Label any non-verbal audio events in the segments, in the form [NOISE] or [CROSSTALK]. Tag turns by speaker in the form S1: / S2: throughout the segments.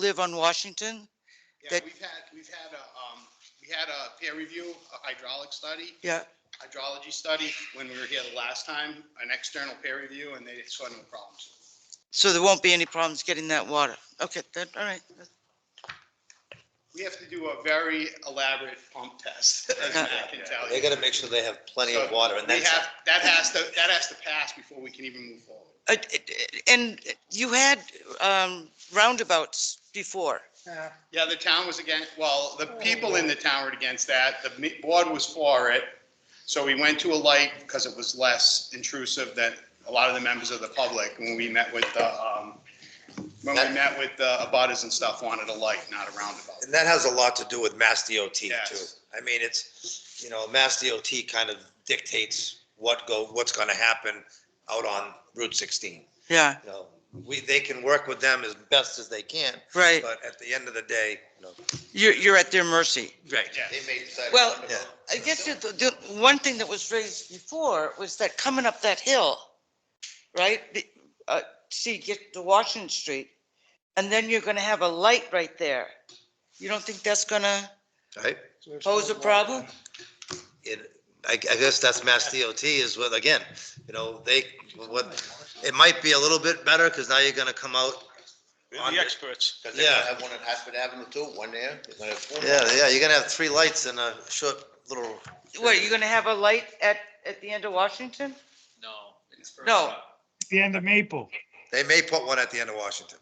S1: live on Washington?
S2: Yeah,
S1: that-
S2: we've had, we've had a, um, we had a peer review, a hydraulic study,
S1: Yeah,
S2: hydrology study when we were here the last time, an external peer review, and they saw no problems.
S1: so there won't be any problems getting that water. Okay, that, all right.
S2: We have to do a very elaborate pump test, [LAUGHS] as Matt
S3: [LAUGHS]
S2: can tell
S3: They
S2: you.
S3: gotta make sure they have plenty of water and
S2: We
S3: that's,
S2: have, that has to, that has to pass before we can even move forward.
S1: Uh, it- it- And you had um, roundabouts before.
S2: Yeah, the town was against, well, the people in the town were against that. The me- board was for it. So we went to a light because it was less intrusive than a lot of the members of the public when we met with the, um, when we met with the abutters and stuff, wanted a light, not a roundabout.
S3: and that has a lot to do with Mass DOT too.
S2: Yes.
S3: I mean, it's, you know, Mass DOT kind of dictates what go, what's gonna happen out on Route sixteen.
S1: Yeah,
S3: You know, we, they can work with them as best as they can,
S1: right.
S3: but at the end of the day, you know.
S1: You're, you're at their mercy.
S3: Right.
S2: Yeah.
S3: They may decide.
S1: Well,
S3: Yeah.
S1: I guess the, the one thing that was raised before was that coming up that hill, right? the- uh, See, get to Washington Street, and then you're gonna have a light right there. You don't think that's gonna
S3: Right?
S1: pose a problem?
S3: It, I, I guess that's Mass DOT is what, again, you know, they, what, it might be a little bit better, cause now you're gonna come out
S4: They're the experts.
S5: Because they're gonna
S3: Yeah.
S5: have one at Hartford Avenue too, one there, they're gonna have four.
S3: Yeah, yeah, you're gonna have three lights in a short little,
S1: What, you're gonna have a light at, at the end of Washington?
S6: No. it's for-
S1: No.
S7: the end of Maple.
S3: they may put one at the end of Washington.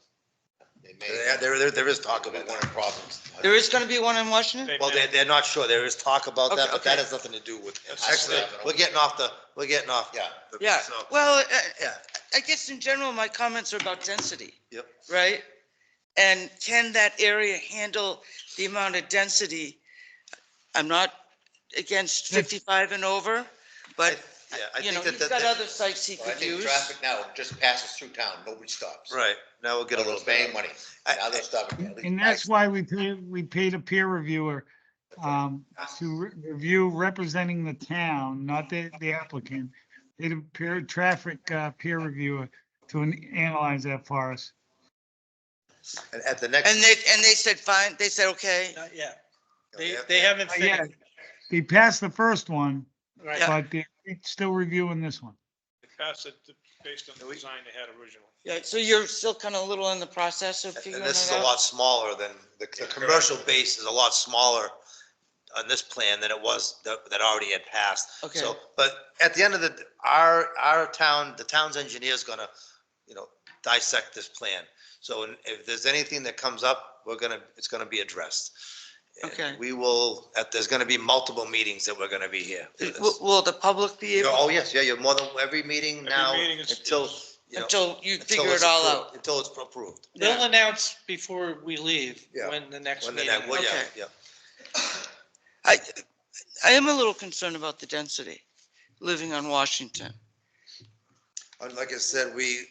S5: They
S3: There,
S5: may,
S3: there, there is talk
S5: talk
S3: about
S5: about one
S3: that.
S5: in Providence.
S1: There is gonna be one in Washington?
S4: They-
S3: Well, they're,
S4: they-
S3: they're not sure, there is talk about that,
S1: Okay,
S3: but that
S1: okay.
S3: has nothing to do with,
S5: It has to
S3: actually,
S5: happen.
S3: we're getting off the, we're getting off.
S5: Yeah.
S3: the-
S1: Yeah,
S3: so-
S1: well, uh,
S3: Yeah,
S1: I guess in general, my comments are about density.
S3: Yep.
S1: Right? And can that area handle the amount of density? I'm not against fifty-five and over, but,
S3: yeah, I
S1: you know,
S3: think
S1: he's
S3: that, that-
S1: got
S3: that, Oh,
S1: other sites he
S5: But I
S1: could
S5: think
S1: use.
S5: traffic now just passes through town, nobody stops.
S3: right, now we'll get a
S5: They're
S3: little
S5: paying
S3: bit.
S5: money,
S3: I-
S5: now they're stopping. at least
S7: And that's why we paid, we paid a peer reviewer um, to re- review representing the town, not the, the applicant. Paid a peer, traffic uh, peer reviewer to an- analyze that for us.
S3: At, at the next.
S1: And they, and they said, fine, they said, okay,
S8: Not yet.
S3: you
S8: They,
S3: know,
S8: they haven't
S7: Uh, Yeah,
S8: finished.
S7: they passed the first one,
S8: Right.
S1: Yeah.
S7: but they're still reviewing this one.
S4: They passed it based on the design they had originally.
S1: yeah, so you're still kind of little in the process of figuring
S3: And
S1: it
S3: this is a
S1: out?
S3: lot smaller than, the, the commercial base is a lot smaller on this plan than it was, that, that already had passed.
S1: Okay,
S3: So, but at the end of the, our, our town, the town's engineer's gonna, you know, dissect this plan. So if there's anything that comes up, we're gonna, it's gonna be addressed. And
S1: Okay.
S3: We will, uh, there's gonna be multiple meetings that we're gonna be here. for this.
S1: will, will the public be
S3: You know,
S1: able,
S3: Oh, yes, yeah, you're more than, every meeting
S4: Every
S3: now
S4: meeting is-
S3: until, you know.
S1: until you
S3: until
S1: figure
S3: it's
S1: it all
S3: approved-
S1: out?
S3: Until it's approved.
S8: They'll announce before we leave,
S3: Yeah.
S8: when the next
S3: When the
S8: meeting.
S3: next, well,
S8: is.
S3: yeah,
S1: Okay.
S3: yeah.
S1: I, I am a little concerned about the density, living on Washington.
S3: And like I said, we,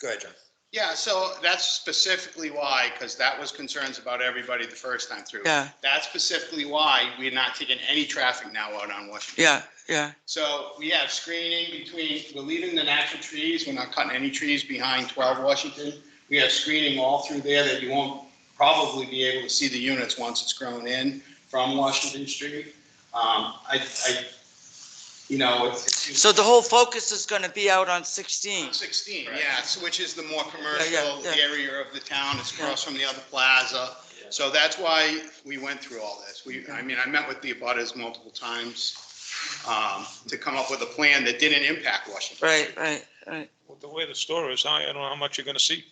S3: go ahead, John.
S2: Yeah, so that's specifically why, because that was concerns about everybody the first time through.
S1: Yeah,
S2: That's specifically why we're not taking any traffic now out on Washington.
S1: yeah, yeah.
S2: So we have screening between, we're leaving the natural trees, we're not cutting any trees behind 12 Washington. We have screening all through there that you won't probably be able to see the units once it's grown in from Washington Street. Um, I, I, you know, it's. it's-
S1: So the whole focus is gonna be out on sixteen.
S2: 16, yes, which is the more
S1: Yeah,
S2: commercial
S1: yeah, yeah.
S2: area of the town, it's across from the other plaza. So that's why we went through all this. We, I mean, I met with the abutters multiple times um, to come up with a plan that didn't impact Washington.
S1: Right, right, right.
S4: With the way the store is, I I don't know how much you're gonna see.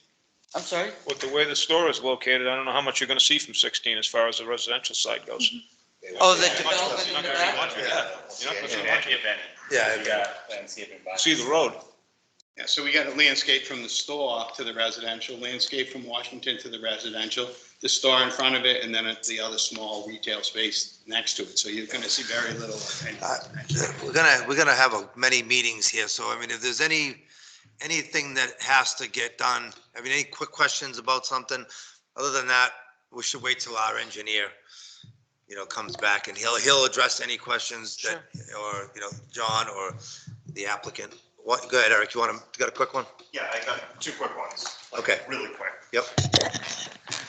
S1: I'm sorry?
S4: With the way the store is located, I don't know how much you're gonna see from 16 as far as the residential side goes.
S5: They
S1: Oh,
S5: won't
S1: the
S5: see it.
S1: development in the back?
S4: Yeah. You're not gonna see much of it.
S3: Yeah. I-
S4: See the road.
S2: Yeah, so we got a landscape from the store to the residential, landscape from Washington to the residential, the store in front of it, and then the other small retail space next to it. So you're going to see very little. of any
S3: Uh,
S2: residential.
S3: we're gonna, we're gonna have a- many meetings here, so I mean, if there's any, anything that has to get done, I mean, any quick questions about something, other than that, we should wait till our engineer, you know, comes back and he'll, he'll address any questions that, or, you know, John or the applicant. What, go ahead, Eric, you want to, got a quick one?
S9: Yeah, I got two quick ones,
S3: Okay,
S9: really quick.
S3: Yep.